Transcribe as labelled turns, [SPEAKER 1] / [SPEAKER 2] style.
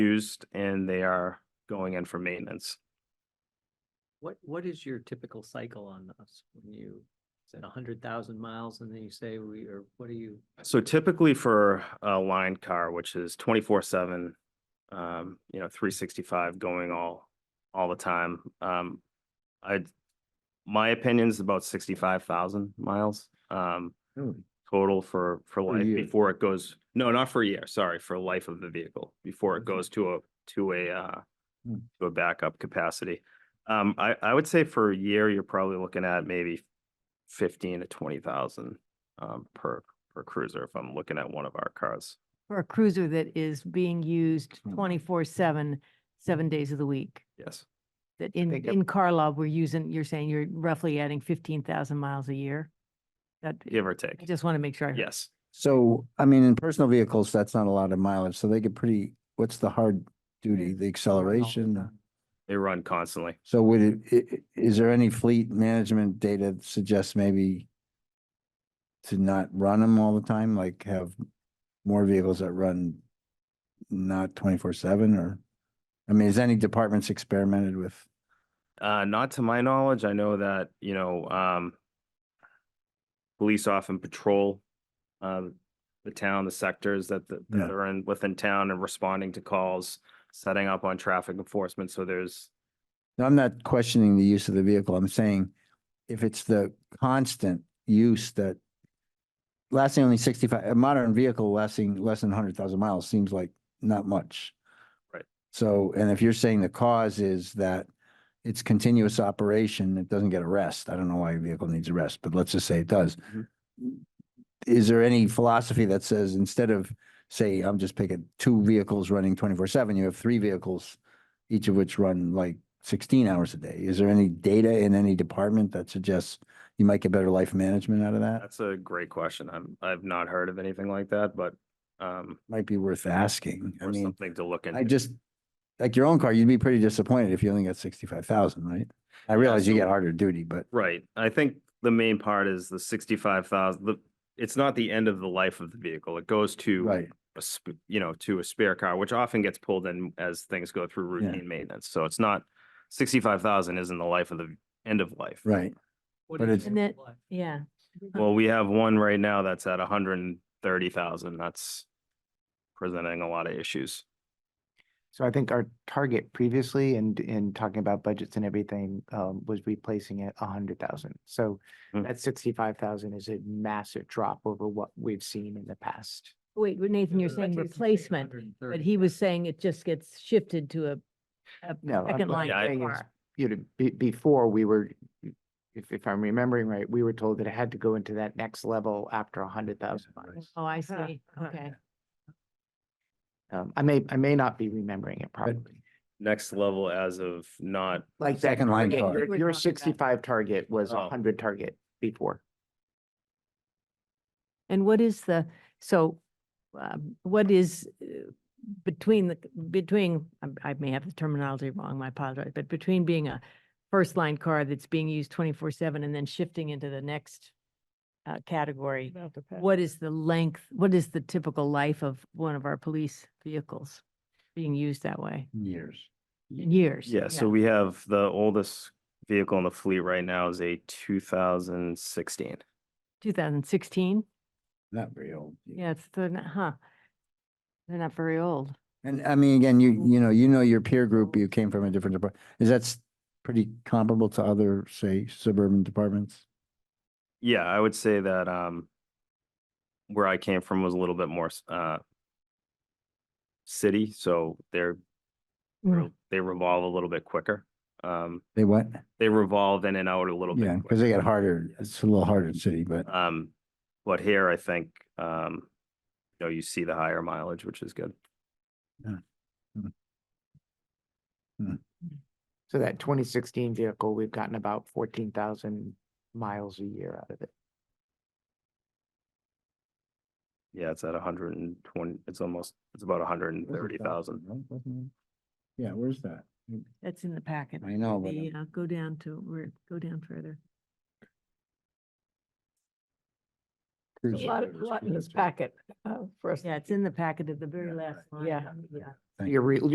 [SPEAKER 1] used and they are going in for maintenance.
[SPEAKER 2] What, what is your typical cycle on those? When you, is it a hundred thousand miles and then you say we, or what do you?
[SPEAKER 1] So typically for a line car, which is twenty-four seven, um, you know, three sixty-five going all, all the time, um, I, my opinion's about sixty-five thousand miles, um, total for, for life
[SPEAKER 3] year.
[SPEAKER 1] before it goes, no, not for a year, sorry, for life of the vehicle, before it goes to a, to a, uh,
[SPEAKER 3] Hmm.
[SPEAKER 1] to a backup capacity. Um, I, I would say for a year, you're probably looking at maybe fifteen to twenty thousand, um, per, per cruiser if I'm looking at one of our cars.
[SPEAKER 4] for a cruiser that is being used
[SPEAKER 3] Mm.
[SPEAKER 4] twenty-four seven, seven days of the week.
[SPEAKER 1] Yes,
[SPEAKER 4] That in,
[SPEAKER 3] think it-
[SPEAKER 4] in Karlov, we're using, you're saying you're roughly adding fifteen thousand miles a year? That,
[SPEAKER 1] give or
[SPEAKER 4] I
[SPEAKER 1] take.
[SPEAKER 4] just want to make sure. I heard.
[SPEAKER 1] Yes.
[SPEAKER 3] So, I mean, in personal vehicles, that's not a lot of mileage, so they get pretty, what's the hard duty, the acceleration?
[SPEAKER 1] They run constantly.
[SPEAKER 3] So would it, i- i- is there any fleet management data that suggests maybe to not run them all the time, like have more vehicles that run not twenty-four seven or? I mean, has any departments experimented with?
[SPEAKER 1] Uh, not to my knowledge. I know that, you know, um, police often patrol, um, the town, the sectors that, the-
[SPEAKER 3] Yeah.
[SPEAKER 1] that are in, within town and responding to calls, setting up on traffic enforcement. So there's,
[SPEAKER 3] Now, I'm not questioning the use of the vehicle. I'm saying if it's the constant use that lasting only sixty-five, a modern vehicle lasting less than hundred thousand miles seems like not much.
[SPEAKER 1] Right.
[SPEAKER 3] So, and if you're saying the cause is that it's continuous operation, it doesn't get a rest. I don't know why a vehicle needs a rest, but let's just say it does.
[SPEAKER 1] Mhm.
[SPEAKER 3] Is there any philosophy that says instead of, say, I'm just picking two vehicles running twenty-four seven, you have three vehicles, each of which run like sixteen hours a day. Is there any data in any department that suggests you might get better life management out of that?
[SPEAKER 1] that's a great question. I'm, I've not heard of anything like that, but, um,
[SPEAKER 3] Might be worth asking. Mm, I
[SPEAKER 1] or
[SPEAKER 3] mean,
[SPEAKER 1] something to look into.
[SPEAKER 3] I just, like your own car, you'd be pretty disappointed if you only got sixty-five thousand, right? I realize you
[SPEAKER 1] so-
[SPEAKER 3] get harder duty, but
[SPEAKER 1] Right. I think the main part is the sixty-five thousand, the, it's not the end of the life of the vehicle. It goes to
[SPEAKER 3] right,
[SPEAKER 1] a sp- you know, to a spare car, which often gets pulled in as things go through
[SPEAKER 3] Yeah.
[SPEAKER 1] routine maintenance. So it's not sixty-five thousand isn't the life of the end of life.
[SPEAKER 3] right. But it's-
[SPEAKER 4] And then- Yeah.
[SPEAKER 1] Well, we have one right now that's at hundred and thirty thousand. That's presenting a lot of issues.
[SPEAKER 5] So I think our target previously and in talking about budgets and everything, um, was replacing it a hundred thousand. So
[SPEAKER 3] Hmm.
[SPEAKER 1] Mm.
[SPEAKER 5] that sixty-five thousand is a massive drop over what we've seen in the past.
[SPEAKER 4] Wait, what Nathan,
[SPEAKER 2] uh,
[SPEAKER 4] you're saying replacement, but he was saying it just gets shifted to a, a
[SPEAKER 5] No, I'm-
[SPEAKER 4] second
[SPEAKER 5] what
[SPEAKER 4] line
[SPEAKER 1] Yeah, I-
[SPEAKER 5] I'm saying is,
[SPEAKER 4] car.
[SPEAKER 5] You know, be- before we were, if, if I'm remembering right, we were told that it had to go into that next level after a hundred thousand miles.
[SPEAKER 4] Oh, I see. Okay.
[SPEAKER 5] Um, I may, I may not be remembering it properly.
[SPEAKER 1] Next level as of not,
[SPEAKER 5] Like that
[SPEAKER 3] Second line
[SPEAKER 5] target,
[SPEAKER 3] car.
[SPEAKER 5] your-
[SPEAKER 4] We were
[SPEAKER 5] Your
[SPEAKER 4] talking about-
[SPEAKER 5] sixty-five target was
[SPEAKER 1] Oh.
[SPEAKER 5] a hundred target before.
[SPEAKER 4] And what is the, so um, what is uh, between the, between, I'm- I may have the terminology wrong, I apologize, but between being a first line car that's being used twenty-four seven and then shifting into the next uh, category, what is the length, what is the typical life of one of our police vehicles being used that way?
[SPEAKER 3] Years.
[SPEAKER 4] In Years?
[SPEAKER 1] yeah, so we have the oldest vehicle in the fleet right now is a two thousand sixteen.
[SPEAKER 4] Two thousand sixteen?
[SPEAKER 3] Not very old.
[SPEAKER 4] Yeah, it's, they're not, huh? They're not very old.
[SPEAKER 3] And I mean, again, you, you know, you know your peer group, you came from a different department. Is that s- pretty comparable to other, say, suburban departments?
[SPEAKER 1] Yeah, I would say that, um, where I came from was a little bit more, s- uh, city, so they're
[SPEAKER 3] Mm.
[SPEAKER 1] re- they revolve a little bit quicker. Um,
[SPEAKER 3] They what?
[SPEAKER 1] they revolve in and out a little
[SPEAKER 3] Yeah,
[SPEAKER 1] bit.
[SPEAKER 3] because they get harder. It's a little harder in city, but.
[SPEAKER 1] quicker. Um, but here I think, um, you know, you see the higher mileage, which is good.
[SPEAKER 5] So that twenty sixteen vehicle, we've gotten about fourteen thousand miles a year out of it.
[SPEAKER 1] Yeah, it's at hundred and twenty, it's almost, it's about hundred and thirty thousand.
[SPEAKER 3] Yeah, where's that?
[SPEAKER 4] That's in the packet.
[SPEAKER 3] I know, but
[SPEAKER 4] The, uh, go down to, where, go down further.
[SPEAKER 3] I'm
[SPEAKER 6] A lot, a lot in this packet uh, for us.
[SPEAKER 4] Yeah, it's in the packet at the very last line.
[SPEAKER 6] Yeah.
[SPEAKER 4] Yeah.
[SPEAKER 3] Thank
[SPEAKER 5] You're re-